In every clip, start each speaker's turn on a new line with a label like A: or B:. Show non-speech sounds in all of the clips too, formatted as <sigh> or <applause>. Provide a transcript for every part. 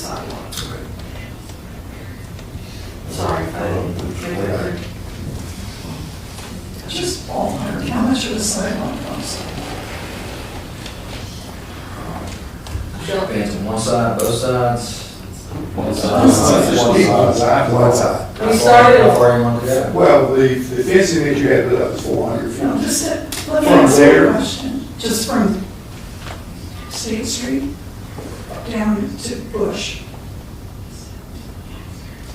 A: sidewalks. Sorry if I didn't get it right. Just ballpark, how much of a sidewalk costs?
B: Shop hands on one side, both sides. One side.
C: One side.
B: How far- How far you want to go?
C: Well, the, the fencing that you had put up is four hundred feet.
A: No, just, that- let me
C: From
A: ask you
C: there?
A: a question. Just from State Street down to Bush.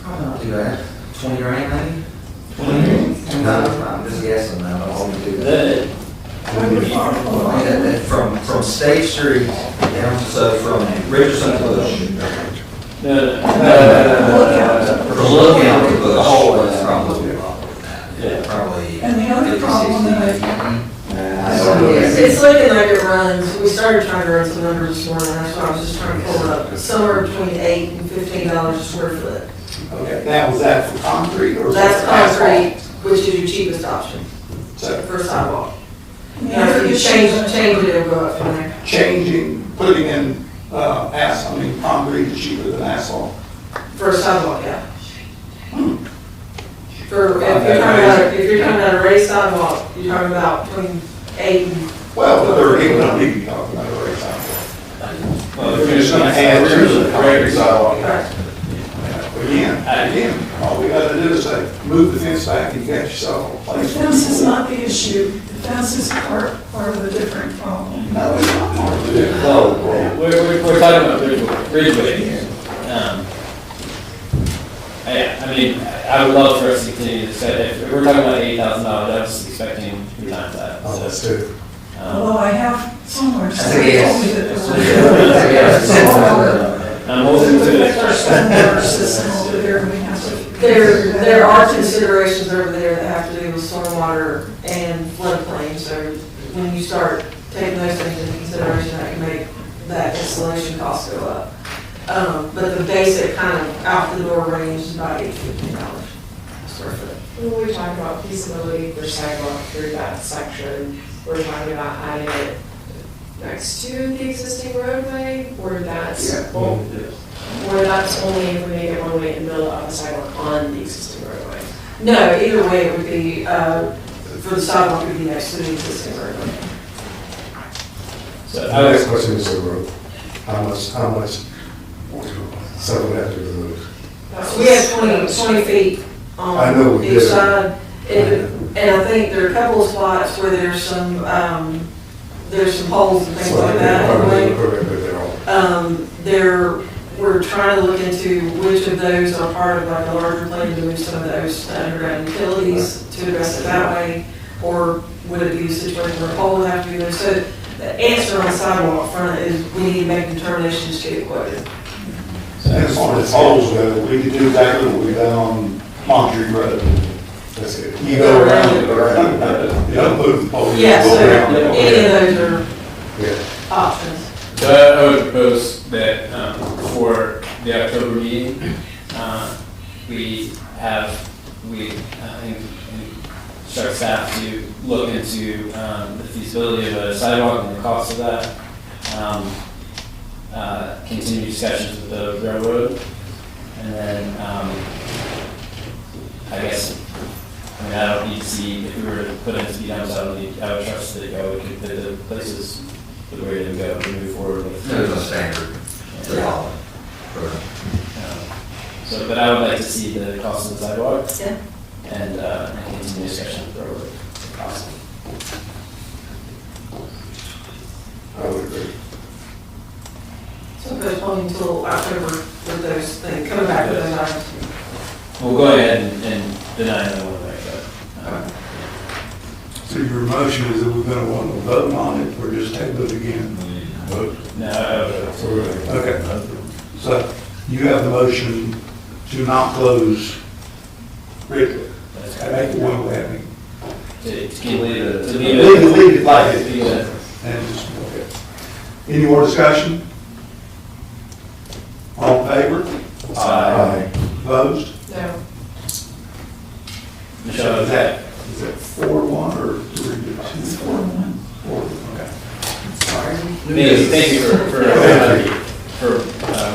B: I'm not do that. Twenty grand maybe? Twenty? No, I'm just guessing now, I'll only do that.
A: What would far
B: I mean, that-
A: along?
B: that From, from State Street down, so from Richardson to Bush.
C: Uh,
B: From Lookout to Bush. is Probably, probably.
A: And the other problem that I-
B: 50, 60.
D: It's, it's looking like it runs, we started trying to run some numbers this morning, that's why I was just trying to pull it up, somewhere between eight and fifteen dollars a square foot.
C: Okay, now was that for concrete or? was
D: That's
C: that asphalt?
D: concrete, which is your cheapest option
C: So
D: for a sidewalk.
A: The
D: Now,
A: other
D: if you
A: issue
D: change,
A: that-
D: change it, it'll go up from there.
C: changing, putting in, uh, asphalt, I mean, concrete is cheaper than asphalt.
D: For a sidewalk, yeah. For, if you're talking about, if you're talking about a raised sidewalk, you're talking about between eight and
C: Well, but they're, even don't need to be talking about a raised sidewalk. If you're just gonna add to the concrete sidewalk, again, again, all we gotta do is say, move the fence back and you got yourself a
A: The
C: place.
A: fence is not the issue, the fence is part, part of a different problem.
C: No, it's not hard to do.
E: We're, we're, we're talking about Ridgeway, Ridgeway here. Um, I, I mean, I would love for us to continue to say, if we're talking about eight thousand dollars, I was expecting three times that. so, um,
A: Although I have somewhere,
B: That's a
A: somebody told
B: yes.
A: me that there
B: That's a
A: were.
B: yes. <laughs>
A: <laughs>
E: I'm
A: There's
E: hoping
A: a
E: to,
A: water system over there, and we have to.
D: There, there are considerations over there that have to do with stormwater and floodplain, so when you start taking those things into consideration, that can make that installation cost go up. Um, but the basic kind of out the door range is about eight fifty dollars square foot.
F: When we talk about feasibility for sidewalk through that section, we're talking about adding it next to the existing roadway, or that's,
C: Yeah.
F: or that's only if we make it one way in the middle of the sidewalk on the existing roadway.
D: No, either way, it would be, uh, for the sidewalk, it would be next to the existing roadway.
E: so
G: The
E: I
G: next
E: was,
G: question is the road. How much, how much, so we have to remove?
F: That
D: We
F: was-
D: have 20 20 feet
G: I know
D: on
G: we
D: each
G: did.
D: side. And and I think there are a couple of spots where there's some, um, there's some holes and things
G: So
D: like that.
G: They're all,
D: Um, There, we're trying to look into which of those are part of like a larger plan to move some of those to underground utilities to address it that way. Or would it be a situation where a pole would have to be there? So the answer on the sidewalk front is we need to make determinations to get quoted.
C: As far as holes go, we could do exactly what we done on Monterey Road.
G: that's it.
C: You go around, you go around, you don't move the pole. you
D: Oh, Yeah,
C: go
D: so
C: around, you go
D: Any
C: around.
D: of those
G: Yeah.
D: are options.
E: so I would propose that, um, for the October meeting, uh, we have, we, uh, in- in- start staff to look into, um, the feasibility of a sidewalk and the cost of that. um, uh, continue discussions with the railroad, and then, um, I guess, I mean, I don't need to see, if we were to put in speed humps, I don't need, I would trust that, I would, that the places, the way to go, to move forward with.
B: There's a standard to follow.
E: Um, So, but I would like to see the cost of the sidewalk.
D: Yeah.
E: And, uh, and continue discussion with the railroad, if possible.
G: I would agree.
D: So postpone until October with those things, coming back with those items.
E: We'll go ahead and- and deny the one way, but, um,
C: So your motion is that we're gonna want to vote on it, or just table it again? Vote.
E: no, I would-
G: So we're gonna-
C: Okay. So you have the motion to not close Ridley.
E: that's
C: I make it one way,
E: To, to keep, leave it, to leave
C: leave it,
E: it.
C: leave it like it
E: Leave
C: is. And just, okay. Any more discussion? All in favor?
G: Aye.
C: Opposed?
F: No,
E: Michelle,
C: Is that, is that four, one, or three, to two? Four, one. Four, okay.
E: thank you, thank you for, for, for